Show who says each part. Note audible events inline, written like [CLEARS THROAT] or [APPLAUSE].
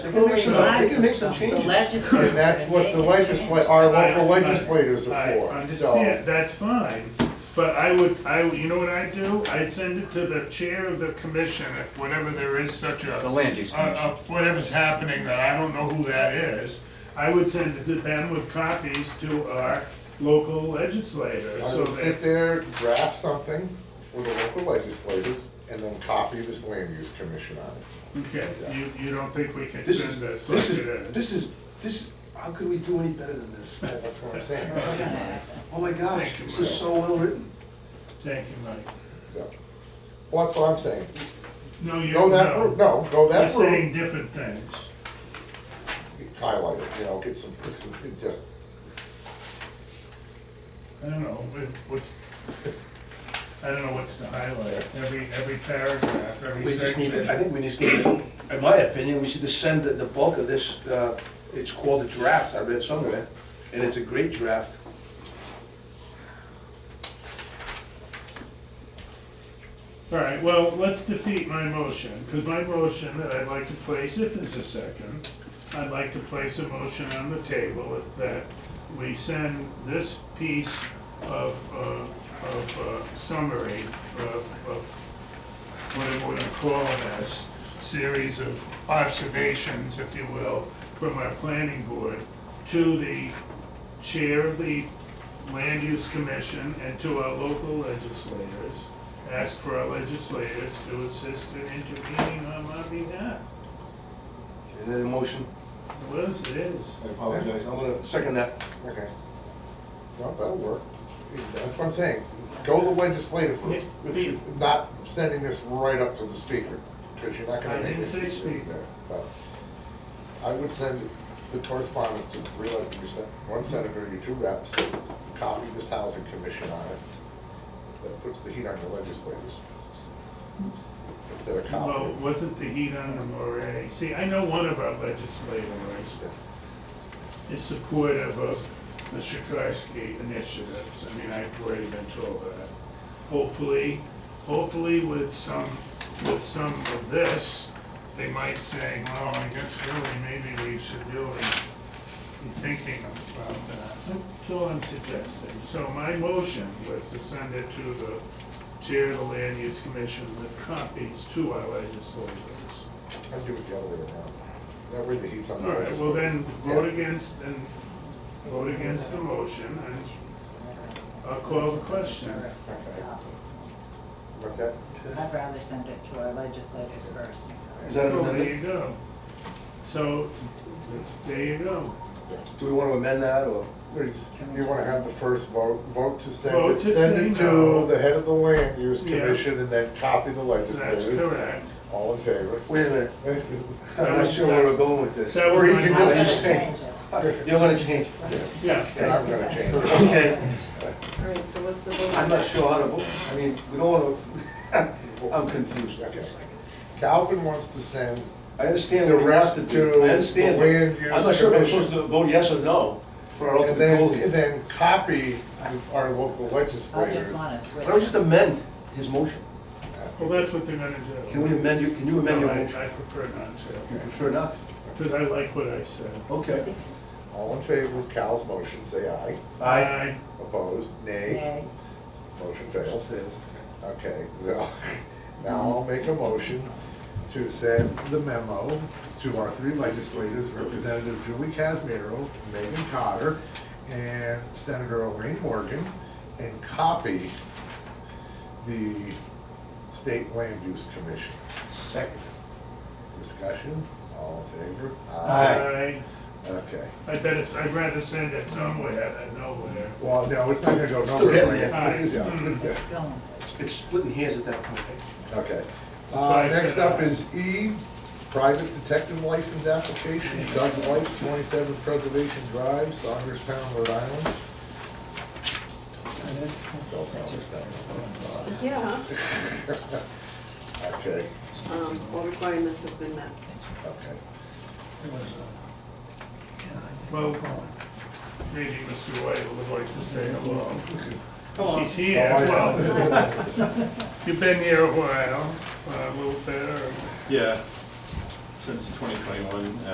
Speaker 1: They can make some, they can make some
Speaker 2: The
Speaker 1: changes.
Speaker 2: legislature.
Speaker 1: And that's what the legisla, our local legislators are
Speaker 3: I
Speaker 1: for, so.
Speaker 3: understand, that's fine, but I would, I, would- you know what I'd do? I'd send it to the chair of the commission, if whatever there is such a.
Speaker 4: The land use
Speaker 3: uh,
Speaker 4: commission.
Speaker 3: uh, Whatever's happening, that I don't know who that is, I would send it to them with copies to our local legislators,
Speaker 1: I
Speaker 3: so uh,
Speaker 1: will sit
Speaker 3: that.
Speaker 1: there, draft something for the local legislators, and then copy this land use commission on it.
Speaker 3: Okay, you, you don't think we can
Speaker 5: This is,
Speaker 3: send this
Speaker 5: this
Speaker 3: like it
Speaker 5: is,
Speaker 3: is?
Speaker 5: this is, this, how could we do any better than this?
Speaker 1: That's what I'm saying.
Speaker 5: Oh my gosh, this is so well written.
Speaker 3: Thank you, Mike.
Speaker 1: So, What, what I'm saying,
Speaker 3: No, you,
Speaker 1: go that route,
Speaker 3: no,
Speaker 1: no, go
Speaker 3: you're
Speaker 1: that route.
Speaker 3: saying different things.
Speaker 1: Highlight it, you know, get some, just-
Speaker 3: I don't know, what- what's, I don't know what's to highlight, every, every paragraph, every
Speaker 5: We just need,
Speaker 3: section.
Speaker 5: to- I think we just need,
Speaker 3: [CLEARS THROAT]
Speaker 5: to- in my opinion, we should just send the, the bulk of this, uh, it's called a draft, I read somewhere, and it's a great draft.
Speaker 3: All right, well, let's defeat my motion, because my motion that I'd like to place, if there's a second, I'd like to place a motion on the table that we send this piece of, uh, of uh, summary of, of whatever we're gonna call it as, series of observations, if you will, from our planning board to the chair of the land use commission and to our local legislators. Ask for our legislators to assist in intervening on my behalf.
Speaker 5: And then the motion,
Speaker 3: Liz, it is.
Speaker 6: I
Speaker 5: I'm
Speaker 6: apologize.
Speaker 5: gonna second that.
Speaker 1: okay. No, that'll work. That's what I'm saying, go the legislative route,
Speaker 3: Yeah.
Speaker 1: not sending this right up to the speaker, because you're not
Speaker 3: I
Speaker 1: gonna make
Speaker 3: didn't
Speaker 1: this
Speaker 3: say
Speaker 1: decision
Speaker 3: speaker.
Speaker 1: there. but I would send the correspondence to three, like you said, one senator, your two reps, copy this housing commission on it. That puts the heat on the legislators. If they're
Speaker 3: Well,
Speaker 1: copying.
Speaker 3: wasn't the heat on them already? See, I know one of our legislators is supportive of the Shikorsky initiatives. I mean, I've already been told that. Hopefully, hopefully with some, with some of this, they might say, well, I guess really, maybe we should really be thinking about that. That's all I'm suggesting. So my motion was to send it to the chair of the land use commission with copies to our legislators.
Speaker 1: I'd do it the other way around. That way the heat's on
Speaker 3: All
Speaker 1: the
Speaker 3: right,
Speaker 1: legislators.
Speaker 3: well then,
Speaker 1: Yeah.
Speaker 3: vote against, and vote against the motion, and I'll call the question.
Speaker 1: Okay. What's that?
Speaker 2: I'd rather send it to our legislators first.
Speaker 5: Is that an
Speaker 3: Oh, There
Speaker 5: amendment?
Speaker 3: you go. So, there you go.
Speaker 5: Do we wanna amend that, or?
Speaker 1: You wanna have the first vote, vote to send
Speaker 3: Vote
Speaker 1: it,
Speaker 3: to
Speaker 1: send it
Speaker 3: say no.
Speaker 1: to the head of the land use
Speaker 3: Yeah.
Speaker 1: commission and then copy the
Speaker 3: That's
Speaker 1: legislators.
Speaker 3: correct.
Speaker 1: All in favor?
Speaker 5: Wait a minute, I'm not sure where we're going with this.
Speaker 3: That was
Speaker 1: Or you
Speaker 3: my
Speaker 1: can
Speaker 2: I'm gonna
Speaker 1: just
Speaker 3: motion.
Speaker 1: say-
Speaker 2: change it.
Speaker 5: You're gonna change.
Speaker 3: Yeah.
Speaker 1: And I'm gonna change it.
Speaker 5: Okay,
Speaker 7: All right, so what's the vote?
Speaker 5: I'm not sure how to vote, I mean, we don't wanna, I'm confused.
Speaker 1: Okay. Calvin wants to send,
Speaker 5: I understand what it has to do, I understand.
Speaker 1: The land use
Speaker 5: I'm not sure if I'm
Speaker 1: commission.
Speaker 5: supposed to vote yes or no for our
Speaker 1: and
Speaker 5: ultimate
Speaker 1: then,
Speaker 5: goal
Speaker 1: and
Speaker 5: here.
Speaker 1: then copy our local
Speaker 2: I just
Speaker 1: legislators.
Speaker 2: wanna
Speaker 5: Why don't we
Speaker 2: switch.
Speaker 5: just amend his motion?
Speaker 3: Well, that's what they're gonna do.
Speaker 5: Can we amend, you? can you amend
Speaker 3: No,
Speaker 5: your
Speaker 3: I
Speaker 5: motion?
Speaker 3: I prefer not to,
Speaker 5: You prefer not to?
Speaker 3: because I like what I said.
Speaker 5: Okay.
Speaker 1: All in favor of Cal's motion, say aye.
Speaker 5: Aye.
Speaker 1: Opposed, nay.
Speaker 2: Yay.
Speaker 1: Motion fails.
Speaker 5: Upstairs.
Speaker 1: Okay, so now I'll make a motion to send the memo to our three legislators, Representative Julie Casimiro, Megan Cotter, and Senator Elaine Morgan, and copy the State Land Use Commission.
Speaker 5: Second.
Speaker 1: Discussion, all in favor?
Speaker 3: Aye.
Speaker 1: Okay.
Speaker 3: I bet it's, I'd rather send it somewhere than nowhere.
Speaker 1: Well, no, it's not gonna go
Speaker 5: Still
Speaker 1: nowhere.
Speaker 5: getting there.
Speaker 1: It is, [LAUGHS] yeah.
Speaker 3: Aye.
Speaker 2: It's going.
Speaker 5: It's splitting hairs at that point.
Speaker 1: Okay.
Speaker 3: Why
Speaker 1: Uh,
Speaker 3: is
Speaker 1: next
Speaker 3: it
Speaker 1: up
Speaker 3: not?
Speaker 1: is E, private detective license application, Doug White, twenty-seven Preservation Drive, Saunders Town, Rhode Island. [LAUGHS] Spell Saunders Town.
Speaker 7: Yeah,
Speaker 1: Okay,
Speaker 7: um, all requirements have been met.
Speaker 1: okay.
Speaker 3: Well, maybe Mr. White would like to say hello. He's here,
Speaker 1: How are you? [LAUGHS]
Speaker 3: well, you've been here uh, a while, a little bit, or
Speaker 6: Yeah, since 2021,